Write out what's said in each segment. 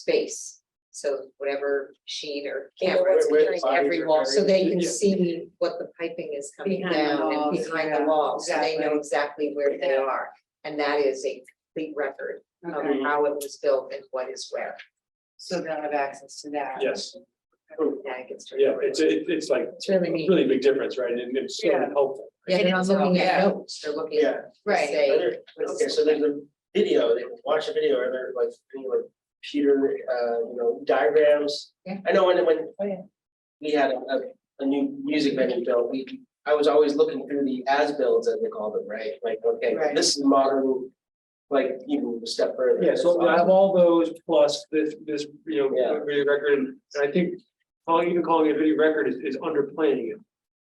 space. So whatever sheet or Yeah, camera is what's Where- where behind the every bodies are wall, so they buried. can Yeah. see what the piping is coming Behind the down and walls, behind the yeah, wall, so they know exactly. exactly where they Yeah. are. And that is a complete record of Mm-hmm. Okay, how it was built and what is where. so they'll have access to that. Yes. Yeah, it gets to- Yeah, it's, it- it's like, It's really neat. really big difference, right? And it's so Yeah. helpful. Yeah, they're not looking at Yeah. notes, they're looking Yeah. at, Right, say. Better- Okay, so there's a video, they can watch a video, or they're like, you know, like Peter, uh, you know, diagrams. Yeah. I know when, when. Oh, yeah. We had a, a, a new music venue built, we, I was always looking through the as builds, as they call them, right? Like, okay, Right. this is modern, like, even a step further. Um, Yeah, so I have all those plus this, this, you know, Yeah. video record, and I think calling, even calling it a video record is, is underplaying it.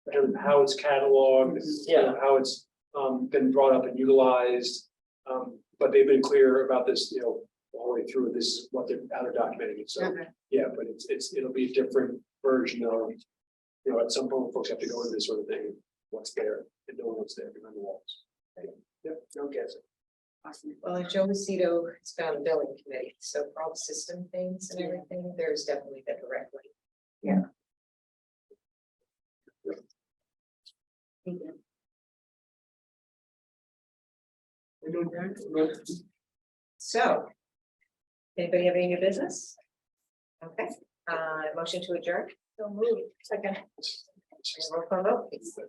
in terms of how it's cataloged, you know, Yeah. how it's, um, been brought up and utilized. Um, but they've been clear about this, you know, all the way through, this is what they're, how they're documenting it, so, "Oh, Okay. yeah, but it's, it's, it'll be a different version of. You know, at some point, folks have to go into this sort of thing, what's there, and know what's there behind the walls. Yep, no guessing. awesome. Well, Joe Macedo has been on the billing committee, so for all the system things and everything, there's definitely the direct link. So. Anybody have any new business? Okay, uh, motion to adjourn? So moved. Second. Roll call vote, please.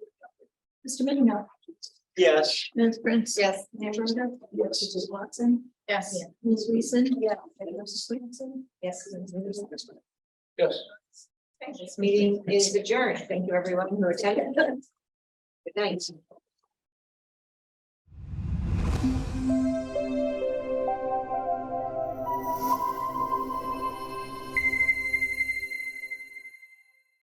Mr. Minio, Yes. Ms. Prince. Yes. Mayor Verda. Mrs. Watson. Yes. Ms. Weason. Yeah. Mrs. Williamson. Yes. Yes. This meeting is adjourned. Thank you, everyone who attended. Good night.